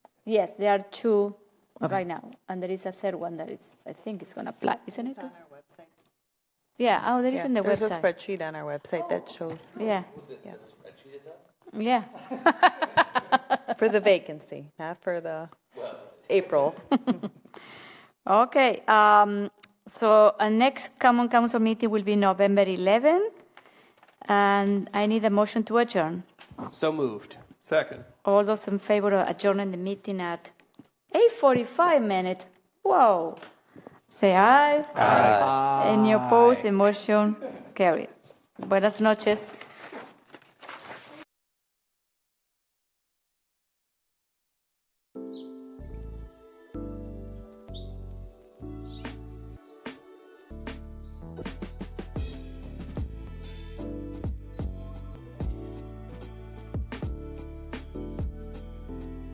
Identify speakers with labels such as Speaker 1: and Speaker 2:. Speaker 1: Yes, there are two right now, and there is a third one that is, I think it's going to apply, isn't it?
Speaker 2: our website.
Speaker 1: Yeah, oh, there is
Speaker 2: Yeah,
Speaker 1: on the
Speaker 2: There's a
Speaker 1: website.
Speaker 2: spreadsheet on our website that shows
Speaker 1: Yeah, yeah,
Speaker 2: for the vacancy, not for the April.
Speaker 1: okay. um, So our next common council meeting will be November 11, and I need a motion to adjourn.
Speaker 3: So moved. Second.
Speaker 1: All those in favor of adjourning the meeting at 8:45 minute? Whoa. Say aye. Aye. Any opposed, the motion carried. Buenas noches.